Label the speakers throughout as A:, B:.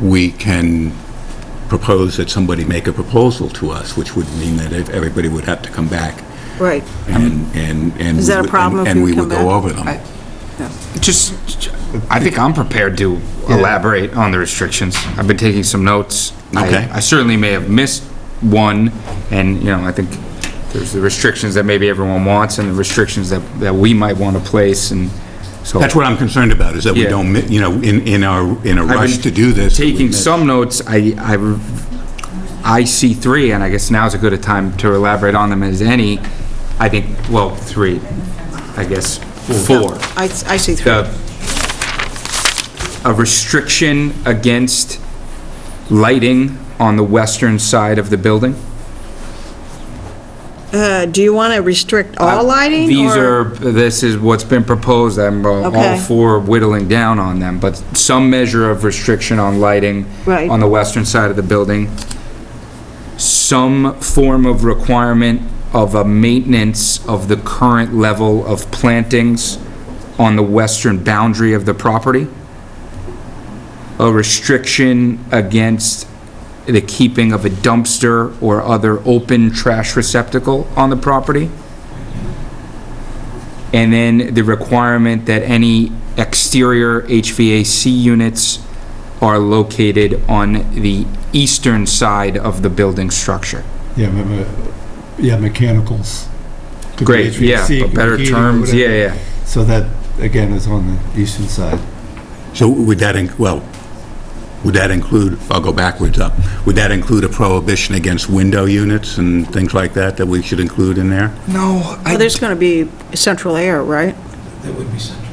A: we can propose that somebody make a proposal to us, which would mean that if everybody would have to come back
B: Right.
C: Mm-hmm.
A: and, and. and
B: Is
A: we
B: that a
A: would-
B: problem
A: and-
B: if
A: And
B: you
A: we
B: come
A: would
B: back?
A: go over them.
B: I- yeah.
C: Just, I think I'm prepared to elaborate on the restrictions. I've been taking some notes. I-
A: Okay.
C: I certainly may have missed one, and, you know, I think there's the restrictions that maybe everyone wants and the restrictions that, that we might want to place, and so.
A: That's what I'm concerned about, is that we
C: Yeah.
A: don't, mi- you know, in, in our, in a
C: I've been
A: rush to do this. that we
C: Taking
A: miss-
C: some notes, I, I, I see three, and I guess now's a good a time to elaborate on them as any. I think, well, three, I guess, four.
B: I, I see three.
C: the, a restriction against lighting on the western side of the building?
B: Uh, Do you want to restrict all Uh, lighting?
C: Uh, These
B: or-
C: are, this is what's been proposed, I'm uh, all- all
B: Okay.
C: for whittling down on them, but some measure of restriction on lighting
B: Right.
C: on the western side of the building. Some form of requirement of a maintenance of the current level of plantings on the western boundary of the property. A restriction against the keeping of a dumpster or other open trash receptacle on the property. And then the requirement that any exterior HVAC units are located on the eastern side of the building structure.
D: Yeah, remember, yeah, mechanicals. Could be
C: Great, yeah,
D: HVAC,
C: but better
D: heating or
C: terms, yeah,
D: whatever.
C: yeah.
D: So that, again, is on the eastern side.
A: So would that, in- well, would that include, I'll go backwards up, would that include a prohibition against window units and things like that that we should include in there?
C: No,
B: Well, There's going to be central air, right?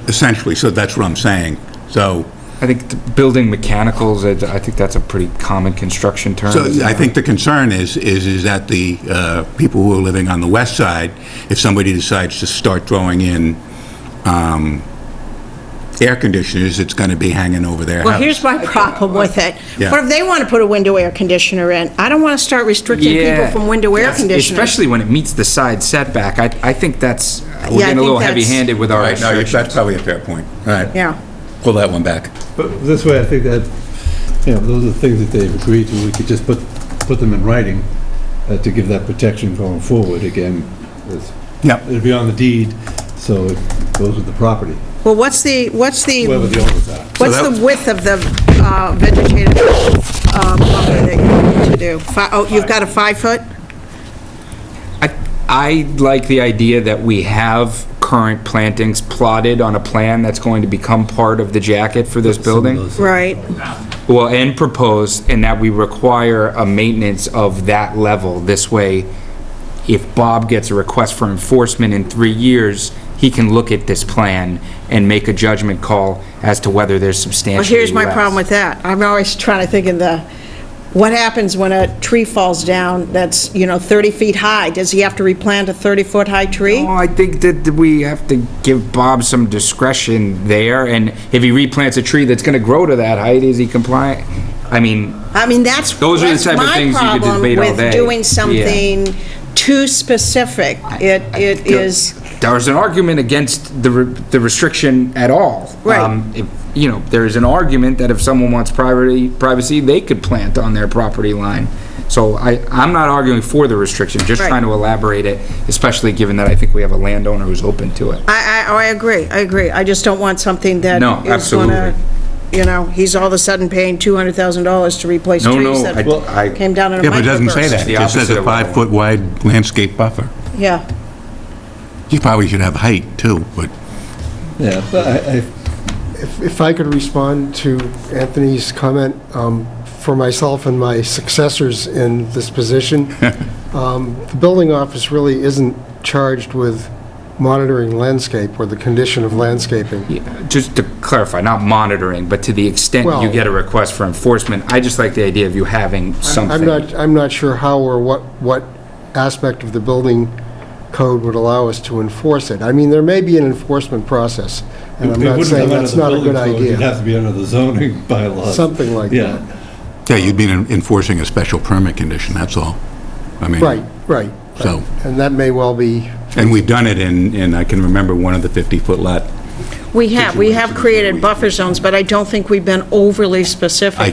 A: Essentially, so that's what I'm saying. So,
C: I think the building mechanicals, I I think that's a pretty common construction term.
A: so I think the concern is, is, is that the uh, people who are living on the west side, if somebody decides to start throwing in um, air conditioners, it's going to be hanging over their house.
B: Well, here's my problem with it.
A: Yeah.
B: What if they want to put a window air conditioner in? I don't want to start restricting people
C: Yeah.
B: from window air
C: Yes,
B: conditioners.
C: Especially when it meets the side setback, I, I think that's, we're
B: I
C: getting a
B: think
C: little
B: that's-
C: heavy-handed with
A: All
C: our
A: right, no,
C: restrictions.
A: that's probably a fair point. All right.
B: Yeah.
A: Pull that one back.
D: But this way, I think that, you know, those are the things that they've agreed to, we could just put, put them in writing uh, to give that protection going forward, again. it's-
A: Yep.
D: It'd be on the deed, so it goes with the property,
B: Well, what's the, what's the,
D: whoever the owners are.
B: what's
A: So
B: the
A: that-
B: width of the uh, vegetated uh, buffer that you need to do? Fi- Oh, you've got a five-foot?
C: I, I like the idea that we have current plantings plotted on a plan that's going to become part of the jacket for this building.
B: Right.
C: Well, and proposed, and that we require a maintenance of that level. This way, if Bob gets a request for enforcement in three years, he can look at this plan and make a judgment call as to whether there's
B: Well,
C: substantially
B: here's my problem
C: less.
B: with that. I'm always trying to think of the, what happens when a tree falls down that's, you know, 30 feet high? Does he have to replant a 30-foot-high tree?
C: Well, I think that we have to give Bob some discretion there, and if he replants a tree that's gonna grow to that height, is he compliant? I mean,
B: I mean, that's,
C: Those are the
B: that's
C: type of
B: my
C: things you could
B: problem
C: debate all
B: with
C: day.
B: doing
C: Yeah.
B: something too specific. It, it is,
C: there's an argument against the, re- the restriction at all.
B: Right.
C: Um, if- You know, there is an argument that if someone wants privacy, privacy, they could plant on their property line. So I, I'm not arguing for the restriction, just
B: Right.
C: trying to elaborate it, especially given that I think we have a landowner who's open to it.
B: I, I, oh, I agree, I agree. I just don't want something that
C: No,
B: is gonna,
C: absolutely.
B: you know, he's all of a sudden paying $200,000 to replace
C: No, no,
B: trees that
C: I- I-
B: came down in a
A: Yeah, but it doesn't say that.
B: microburst.
C: The
A: It just says
C: opposite
A: a
C: of what I want.
A: five-foot wide landscape buffer.
B: Yeah,
A: You probably should have height, too, but...
D: Yeah, but I, I
E: If if I could respond to Anthony's comment, um, for myself and my successors in this position, um, the building office really isn't charged with monitoring landscape or the condition of landscaping.
C: Yeah, Just to clarify, not monitoring, but to the extent you
E: Well-
C: get a request for enforcement, I just like the idea of you having something.
E: I'm not, I'm not sure how or what, what aspect of the building code would allow us to enforce it. I mean, there may be an enforcement process, and I'm
D: It
E: not
D: wouldn't
E: saying
D: come out of
E: that's
D: the
E: not a good
D: building code, It'd
E: idea.
D: have to be under the zoning bylaws.
E: Something like
D: Yeah.
A: Yeah, you'd be enforcing a special permit condition, that's all. I mean,
E: Right, right.
A: So-
E: And that may well be
A: And we've done it in, in, I can remember one of the 50-foot lot
B: we have, we have created buffer zones, but I don't think we've been overly specific